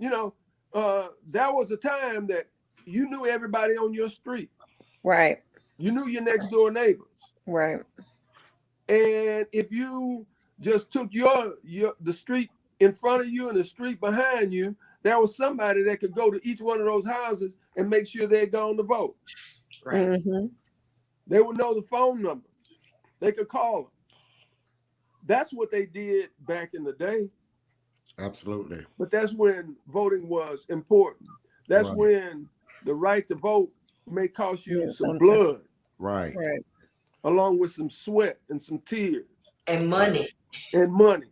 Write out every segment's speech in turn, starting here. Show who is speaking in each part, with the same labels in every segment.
Speaker 1: You know, uh, there was a time that you knew everybody on your street.
Speaker 2: Right.
Speaker 1: You knew your next door neighbors.
Speaker 2: Right.
Speaker 1: And if you just took your your the street in front of you and the street behind you, there was somebody that could go to each one of those houses and make sure they had gone to vote.
Speaker 3: Right.
Speaker 2: hmm
Speaker 1: They would know the phone numbers. They could call them. That's what they did back in the day.
Speaker 4: Absolutely.
Speaker 1: But that's when voting was important. That's
Speaker 4: Right.
Speaker 1: when the right to vote may cost you
Speaker 2: Yeah,
Speaker 1: some
Speaker 2: some-
Speaker 1: blood,
Speaker 4: Right.
Speaker 2: Right.
Speaker 1: along with some sweat and some tears
Speaker 3: And money.
Speaker 1: and money.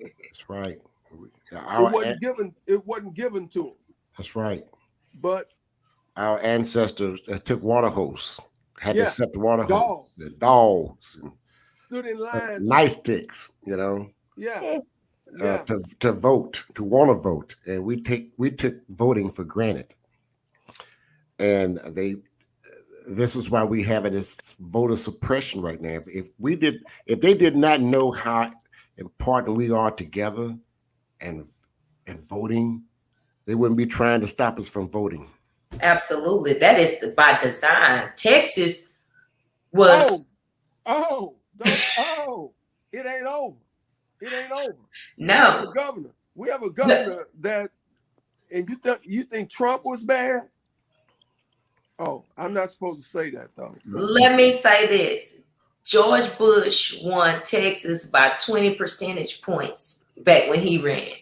Speaker 4: That's right.
Speaker 1: It
Speaker 4: Our, an-
Speaker 1: wasn't given. It wasn't given to them.
Speaker 4: that's right.
Speaker 1: But
Speaker 4: Our ancestors uh, took water hose, had
Speaker 1: Yeah.
Speaker 4: to accept water
Speaker 1: Dogs.
Speaker 4: hose, the dogs, and
Speaker 1: stood in
Speaker 4: uh,
Speaker 1: line.
Speaker 4: night sticks, you know,
Speaker 1: Yeah,
Speaker 4: uh,
Speaker 1: yeah,
Speaker 4: to, to vote, to want to vote. And we take we took voting for granted. And they this is why we have it as voter suppression right now. If we did if they did not know how important we are together and and voting, they wouldn't be trying to stop us from voting.
Speaker 3: Absolutely. That is by design. Texas was
Speaker 1: Oh, don't- oh, it ain't over. It ain't over. We have a
Speaker 3: no.
Speaker 1: governor. We have a governor that, and you think you think Trump was bad? Oh, I'm not supposed to say that though.
Speaker 3: Let me say this. George Bush won Texas by 20 percentage points back when he ran.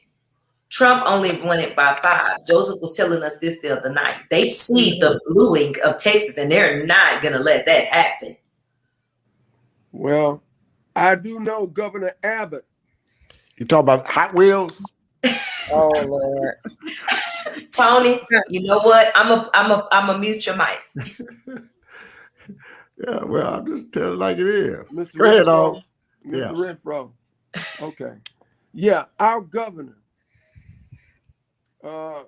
Speaker 3: Trump only won it by five. Joseph was telling us this the other night. They see the blueing of Texas and they're not going to let that happen.
Speaker 1: Well, I do know Governor Abbott.
Speaker 4: You talk about Hot Wheels?
Speaker 2: Oh Lord.
Speaker 3: Tony, you know what? I'm a, I'm a, I'm a mute your mic.
Speaker 4: Yeah, well, I'm just telling it like it is.
Speaker 1: Mr.
Speaker 4: Go ahead,
Speaker 1: Renfro.
Speaker 4: Al.
Speaker 1: Mr.
Speaker 4: Yeah.
Speaker 1: Renfro. Okay. Yeah, our governor. Uh,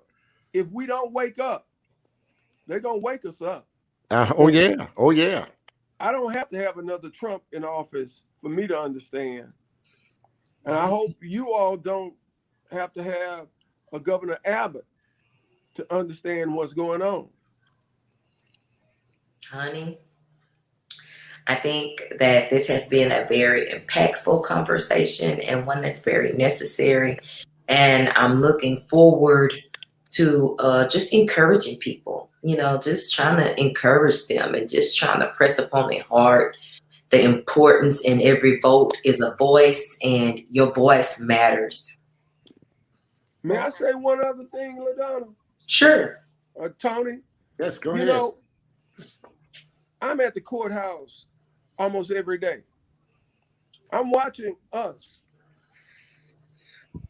Speaker 1: if we don't wake up, they're gonna wake us up.
Speaker 4: Uh, oh yeah, oh yeah.
Speaker 1: I don't have to have another Trump in office for me to understand. And I hope you all don't have to have a Governor Abbott to understand what's going on.
Speaker 3: Honey, I think that this has been a very impactful conversation and one that's very necessary. And I'm looking forward to uh, just encouraging people, you know, just trying to encourage them and just trying to press upon their heart the importance in every vote is a voice and your voice matters.
Speaker 1: May I say one other thing, LaDonna?
Speaker 3: Sure.
Speaker 1: Uh, Tony?
Speaker 4: Yes, go
Speaker 1: you know, I'm at the courthouse almost every day. I'm watching us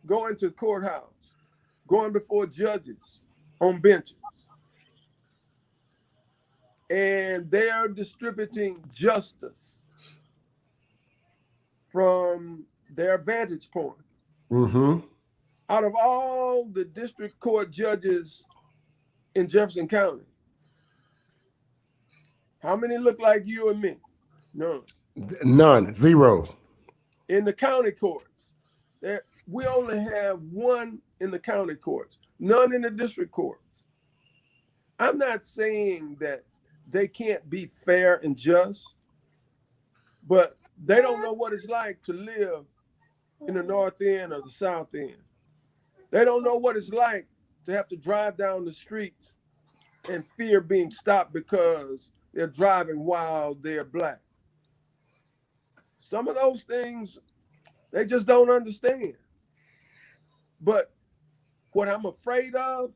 Speaker 1: going to the courthouse, going before judges on benches. And they are distributing justice from their vantage point
Speaker 4: Mm-hmm.
Speaker 1: out of all the district court judges in Jefferson County, how many look like you and me? None.
Speaker 4: None, zero.
Speaker 1: In the county courts, there we only have one in the county courts, none in the district courts. I'm not saying that they can't be fair and just, but they don't know what it's like to live in the north end or the south end. They don't know what it's like to have to drive down the streets and fear being stopped because they're driving while they're black. Some of those things they just don't understand. But what I'm afraid of,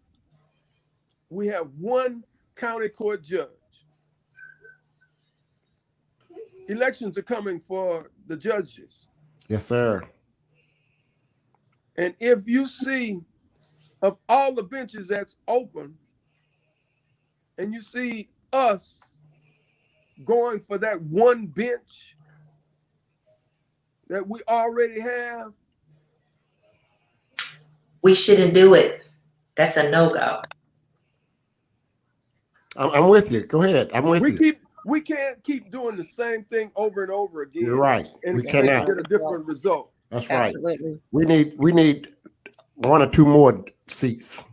Speaker 1: we have one county court judge. Elections are coming for the judges.
Speaker 4: Yes, sir.
Speaker 1: And if you see of all the benches that's open, and you see us going for that one bench that we already have,
Speaker 3: We shouldn't do it. That's a no go.
Speaker 4: I'm, I'm with you. Go ahead. I'm with
Speaker 1: we
Speaker 4: you.
Speaker 1: keep we can't keep doing the same thing over and over again.
Speaker 4: You're right.
Speaker 1: And
Speaker 4: we
Speaker 1: expect to
Speaker 4: cannot.
Speaker 1: get a different result.
Speaker 4: That's right.
Speaker 2: Absolutely.
Speaker 4: We need we need one or two more seats.